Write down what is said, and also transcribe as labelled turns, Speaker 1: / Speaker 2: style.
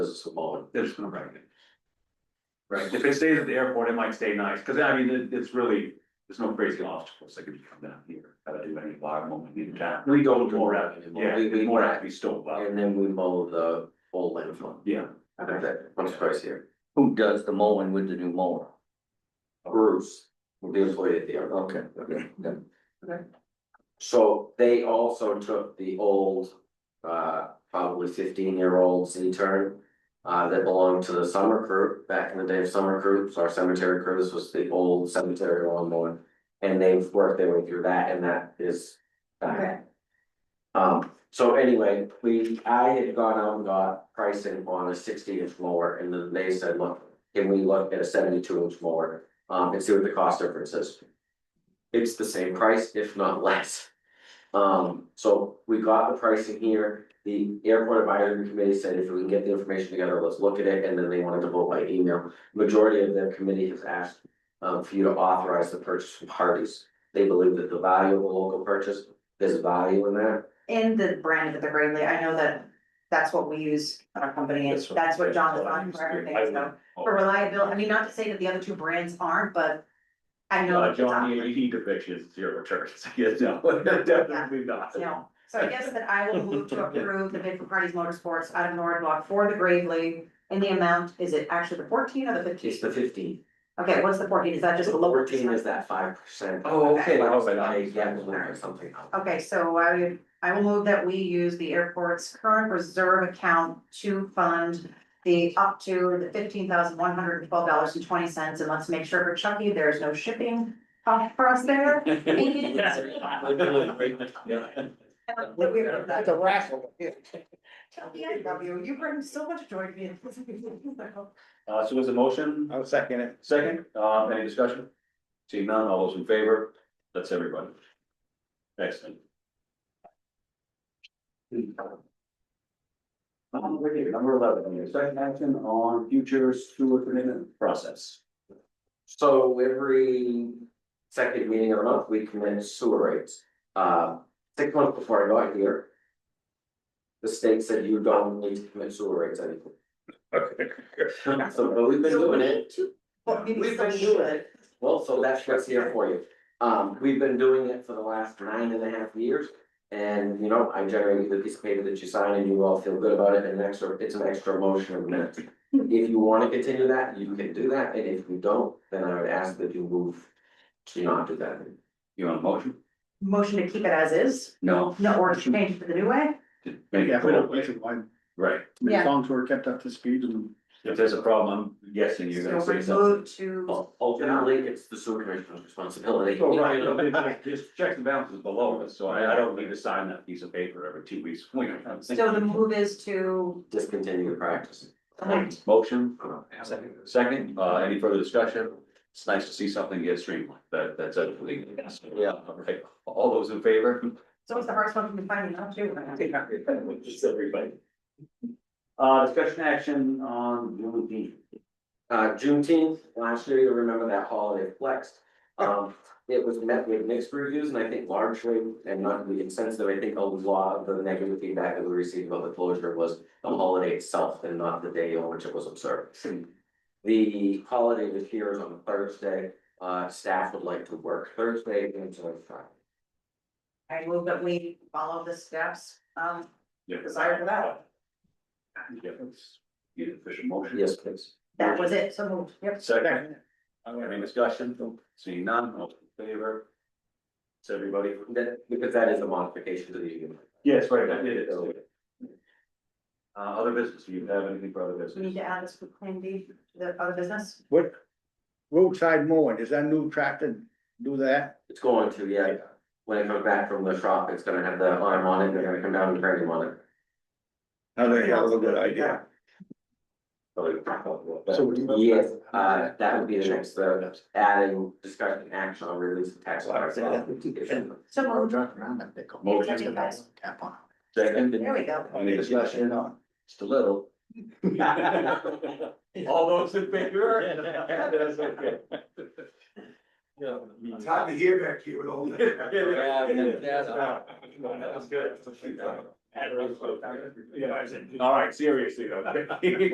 Speaker 1: It's small.
Speaker 2: they're just gonna wreck it. Right, if it stays at the airport, it might stay nice, cause I mean, it- it's really, there's no crazy obstacles that could come down here, gotta do any live moment in town. We go with more out, yeah,
Speaker 1: We- we-
Speaker 2: more out, we still,
Speaker 1: And then we mow the whole landfill.
Speaker 2: yeah.
Speaker 1: Okay, once twice a year.
Speaker 3: Who does the mowing with the new mower?
Speaker 1: Bruce, the employee at the airport.
Speaker 3: Okay, okay, okay.
Speaker 1: So they also took the old, uh, probably fifteen year old Z turn. Uh, that belonged to the summer crew, back in the day of summer crews, our cemetery crews was the old cemetery lawnmower. And they've worked their way through that and that is. back.
Speaker 4: Okay.
Speaker 1: Um, so anyway, we, I had gone out and got pricing on a sixty inch mower and then they said, look, can we look at a seventy two inch mower? Um, and see what the cost difference is. It's the same price, if not less. Um, so we got the pricing here, the airport advisory committee said if we can get the information together, let's look at it, and then they wanted to vote by email. Majority of their committee has asked um for you to authorize the purchase from parties. They believe that the value of a local purchase, there's value in that.
Speaker 4: in the brand of the Gravely, I know that that's what we use at our company, and
Speaker 2: That's what-
Speaker 4: that's what John's
Speaker 2: that's what I
Speaker 4: on
Speaker 2: used
Speaker 4: for
Speaker 2: to do.
Speaker 4: everything,
Speaker 2: I
Speaker 4: so,
Speaker 2: would-
Speaker 4: for reliability, I mean, not to say that the other two brands aren't, but. I know.
Speaker 2: Uh,
Speaker 4: that
Speaker 2: John, you
Speaker 4: it's
Speaker 2: you need to fix his zero returns, yes, no, definitely not.
Speaker 4: on- No, so I guess that I will move to approve the bid for parties motorsports out of Norwood for the Gravely, and the amount, is it actually the fourteen or the fifteen?
Speaker 1: It's the fifteen.
Speaker 4: Okay, what's the fourteen, is that just the lower?
Speaker 1: Fourteen is that five percent.
Speaker 2: Oh,
Speaker 4: okay.
Speaker 1: Like,
Speaker 2: I was like,
Speaker 1: I,
Speaker 2: I'm
Speaker 1: yeah,
Speaker 2: sorry.
Speaker 1: or something.
Speaker 4: Okay, so I would, I will move that we use the airport's current reserve account to fund the up to the fifteen thousand one hundred and twelve dollars and twenty cents, and let's make sure for Chucky, there's no shipping cost for us there. And that we- that- Chucky, I love you, you bring so much joy to me.
Speaker 2: Uh, so was the motion? I'll second it. Second, uh, any discussion? Seeing none, all those in favor, that's everybody. Excellent. Um, we're here, Number eleven, here, second action on future sewer commitment process.
Speaker 1: So every second meeting of the month, we commit sewer rates. Uh, six months before I got here. The state said you don't need to commit sewer rates anymore. So, but we've been doing it.
Speaker 4: Well, maybe
Speaker 1: We've been
Speaker 4: some
Speaker 1: doing
Speaker 4: should.
Speaker 1: it. Well, so that's what's here for you. Um, we've been doing it for the last nine and a half years. And, you know, I generate the piece of paper that you sign and you all feel good about it and an extra, it's an extra motion of minutes. If you wanna continue that, you can do that, and if you don't, then I would ask that you move to not do that.
Speaker 2: You want a motion?
Speaker 4: Motion to keep it as is,
Speaker 2: No.
Speaker 4: no, or to change for the new way,
Speaker 2: Make
Speaker 5: Yeah,
Speaker 2: it
Speaker 5: if we don't
Speaker 2: cool.
Speaker 5: push it, why,
Speaker 2: Right,
Speaker 4: Yeah.
Speaker 5: as long as we're kept up to speed and.
Speaker 2: if there's a problem, I'm guessing you're
Speaker 4: so
Speaker 2: gonna say
Speaker 4: we're
Speaker 2: something.
Speaker 4: moved to,
Speaker 1: Ul- Ultimately, it's the sewer commissioner's responsibility.
Speaker 2: Oh, right, no, but it- just checks and balances below us, so I, I don't need to sign that piece of paper every two weeks. We don't have to think.
Speaker 4: so the move is to.
Speaker 1: Discontinue the practice.
Speaker 2: Motion,
Speaker 1: Second.
Speaker 2: second, uh, any further discussion? It's nice to see something get streamlined, that, that's a, yeah, all right, all those in favor?
Speaker 4: So it's the hardest one to find, you know, too.
Speaker 2: Just everybody. Uh, discussion action on June D.
Speaker 1: Uh, Juneteenth, last year, you remember that holiday flexed. Um, it was met with mixed reviews, and I think largely, and not to be insensitive, I think a lot of the negative feedback that we received about the closure was the holiday itself and not the day on which it was observed. The holiday this year is on Thursday, uh, staff would like to work Thursday until Friday.
Speaker 4: I move that we follow the steps, um,
Speaker 2: Yeah.
Speaker 4: desired for that.
Speaker 2: Yeah, it's- Need an official motion?
Speaker 1: Yes, please.
Speaker 4: That was it, so moved, yep.
Speaker 2: Second, any discussion? Seeing none, all in favor? It's everybody.
Speaker 1: That, because that is a modification to the union.
Speaker 2: Yes, right, I did it. Uh, other business, do you have anything for other
Speaker 4: We need
Speaker 2: business?
Speaker 4: to add this for claim B to the other business.
Speaker 5: What, roadside mowing, is that new tractor do that?
Speaker 1: It's going to, yeah, when it comes back from the shop, it's gonna have the arm on it, they're gonna come down and frame on it.
Speaker 5: I think that was a good idea.
Speaker 2: Oh,
Speaker 1: Yes, uh, that would be the next, uh, adding discussion action on release of tax. files.
Speaker 4: So moved.
Speaker 2: Motion. Second,
Speaker 4: There we go.
Speaker 2: any discussion? Just a little. All those in favor? That's okay.
Speaker 6: It's hard to hear back here with all that.
Speaker 2: That's good. Yeah, I said, All right, seriously though.